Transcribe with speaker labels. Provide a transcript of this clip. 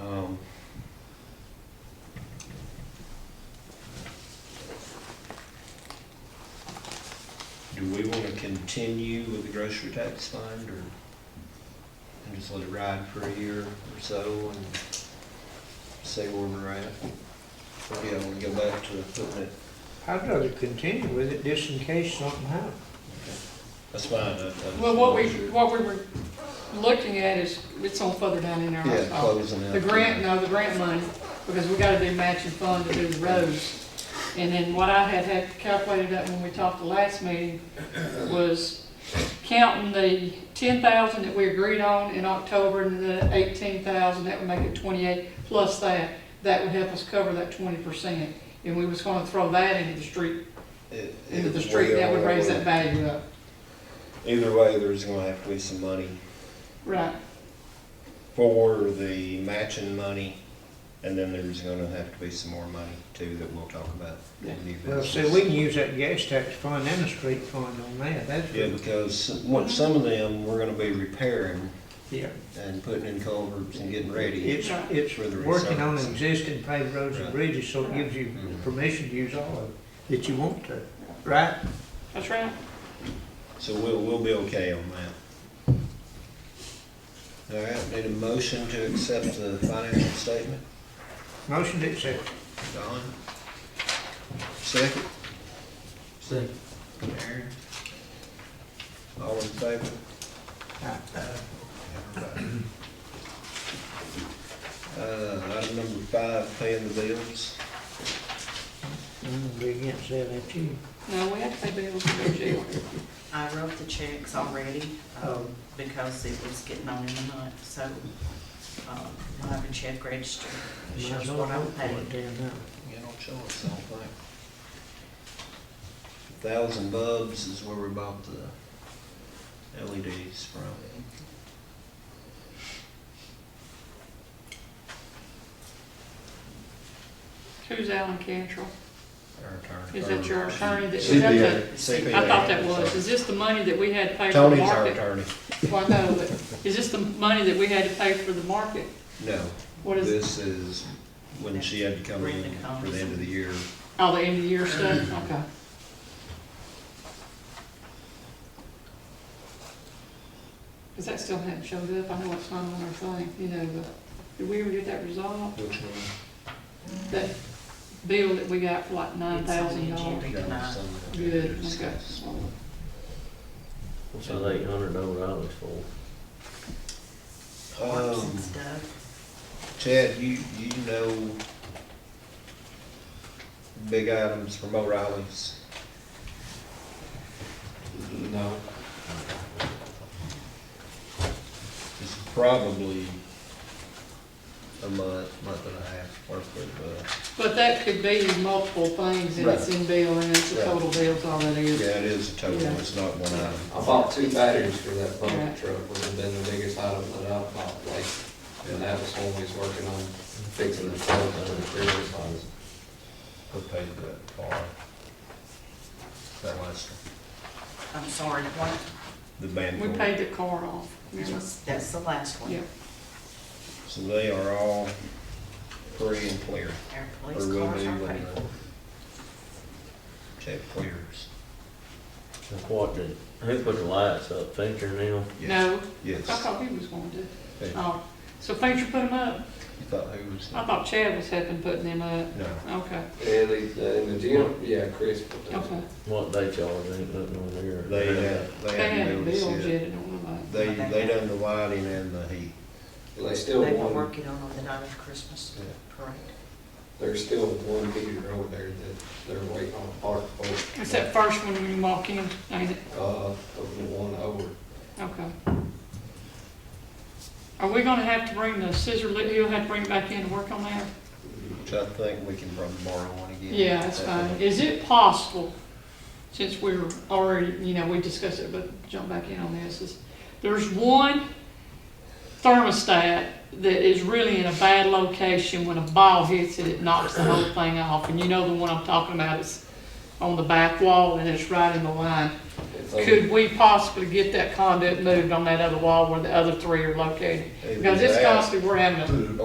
Speaker 1: Um, continue with the grocery tax fund or and just let it ride for a year or so and see where we're at? Or, yeah, we'll go back to putting it,
Speaker 2: I'd rather continue with it just in case something happens.
Speaker 1: that's fine. I- I-
Speaker 3: Well, what we, what we were looking at is, it's on further down in there.
Speaker 1: Yeah, closing out.
Speaker 3: The grant, no, the grant money, because we gotta do matching fund to do the roads. And then what I had had calculated up when we talked the last meeting was counting the ten thousand that we agreed on in October and the eighteen thousand, that would make it twenty-eight, plus that, that would help us cover that twenty percent. And we was gonna throw that into the street,
Speaker 1: It-
Speaker 3: into the
Speaker 1: it-
Speaker 3: street, that would raise that
Speaker 1: whatever.
Speaker 3: value up,
Speaker 1: Either way, there's gonna have to be some money
Speaker 3: right?
Speaker 1: for the matching money, and then there's gonna have to be some more money too that we'll talk about. in new
Speaker 2: Well, see,
Speaker 1: business.
Speaker 2: we can use that gas tax fund and the street fund on that, that's,
Speaker 1: Yeah, because what, some of them, we're gonna be repairing
Speaker 2: yeah.
Speaker 1: and putting in culverts and getting ready.
Speaker 2: It's, it's
Speaker 1: For the
Speaker 2: working on
Speaker 1: resurface.
Speaker 2: existing paved roads
Speaker 1: Right.
Speaker 2: and bridges, so it gives you
Speaker 1: Mhm.
Speaker 2: permission to use all of it that you want to, right?
Speaker 3: That's right.
Speaker 1: So we'll, we'll be okay on that. All right, need a motion to accept the financial statement,
Speaker 2: Motion to accept.
Speaker 1: Don? Second,
Speaker 4: Second.
Speaker 1: Aaron? All in favor? Everybody. Uh, item number five, paying the bills.
Speaker 2: I'm gonna be against that, ain't you?
Speaker 3: No, we had to pay bills to go to jail.
Speaker 5: I wrote the checks already,
Speaker 2: Oh.
Speaker 5: um, because it was getting on in the month, so, um, I have a check register, that
Speaker 2: Might as
Speaker 5: shows
Speaker 2: well
Speaker 5: what I
Speaker 2: vote for it
Speaker 5: paid.
Speaker 2: then, huh?
Speaker 1: You don't show us, I don't think. Thousand Bubs is where we bought the LEDs from.
Speaker 3: Who's Alan Cantrell?
Speaker 1: Our attorney.
Speaker 3: Is that your attorney that- is that
Speaker 1: CPA.
Speaker 3: the-
Speaker 1: CPA.
Speaker 3: I thought that was, is this the money that we had to pay for the
Speaker 1: Tony's our
Speaker 3: market?
Speaker 1: attorney.
Speaker 3: Well, no, but is this the money that we had to pay for the market?
Speaker 1: No,
Speaker 3: What is,
Speaker 1: this is when she had to come in for the end of the year.
Speaker 3: oh, the end of the year
Speaker 1: Mm-hmm.
Speaker 3: stuff, okay. Cause that still hadn't showed up, I know it's not on our thing, you know, but did we ever get that resolved?
Speaker 1: Which one?
Speaker 3: That bill that we got for like nine thousand dollars?
Speaker 5: Three
Speaker 1: That was
Speaker 5: tonight.
Speaker 1: something that we
Speaker 3: Good, okay.
Speaker 1: discussed.
Speaker 4: What's that eight hundred dollars for?
Speaker 5: Works and
Speaker 1: Um,
Speaker 5: stuff.
Speaker 1: Chad, you, you know big items from O'Reilly's.
Speaker 4: No.
Speaker 1: It's probably a month, month and a half worth of, uh,
Speaker 3: But that could be multiple things, and it's in bill, and it's a
Speaker 1: Right.
Speaker 3: total bill's all that is.
Speaker 1: yeah, it is a total, it's not one item.
Speaker 4: I bought two batteries for that
Speaker 3: Yeah.
Speaker 4: bucket truck, which has been the biggest item that I've bought lately. And that was when we was working on fixing the truck and the previous ones.
Speaker 1: Who paid that car? That last, one.
Speaker 5: I'm sorry, what,
Speaker 1: the band.
Speaker 3: We
Speaker 1: for it.
Speaker 3: paid the car off. remember?
Speaker 5: that's the last
Speaker 3: Yeah,
Speaker 5: one,
Speaker 1: So they are all free and clear.
Speaker 5: our
Speaker 1: or
Speaker 5: police
Speaker 1: will
Speaker 5: cars
Speaker 1: be
Speaker 5: are
Speaker 1: when
Speaker 5: paid
Speaker 1: the
Speaker 5: for.
Speaker 1: Check clears.
Speaker 6: That's what did, who put the lights up, Fincher now?
Speaker 3: no, I
Speaker 1: Yes.
Speaker 3: thought he was going to.
Speaker 1: Hey, You
Speaker 3: Oh, so Painter put them up?
Speaker 1: thought who was?
Speaker 3: I thought Chad was helping putting them up.
Speaker 1: No,
Speaker 3: Okay,
Speaker 4: And the, in the gym, yeah, Chris put those.
Speaker 3: okay.
Speaker 6: What they charge, ain't nothing on there.
Speaker 1: they, uh,
Speaker 3: They
Speaker 1: they
Speaker 3: hadn't
Speaker 1: hadn't
Speaker 3: billed
Speaker 1: noticed
Speaker 3: yet,
Speaker 1: yet.
Speaker 3: I don't know about.
Speaker 1: They, they done the lighting and the heat.
Speaker 4: They
Speaker 5: They
Speaker 4: still
Speaker 5: were
Speaker 4: one,
Speaker 5: working on them the night of Christmas
Speaker 1: Yeah.
Speaker 5: parade.
Speaker 4: there's still one heater over there that they're waiting on a part for.
Speaker 3: It's that first one when you walk in, ain't it?
Speaker 4: Uh, of the one over.
Speaker 3: Okay. Are we gonna have to bring the scissor lift, he'll have to bring it back in to work on that?
Speaker 1: Which I think we can probably borrow one again.
Speaker 3: Yeah, that's fine. Is it possible, since we're already, you know, we discussed it, but jump back in on this, is there's one thermostat that is really in a bad location. When a ball hits it, it knocks the whole thing off. And you know the one I'm talking about, it's on the back wall and it's right in the line.
Speaker 4: It's over.
Speaker 3: Could we possibly get that conduit moved on that other wall where the other three are located? Because it's
Speaker 1: Either that-
Speaker 3: costly, we're having a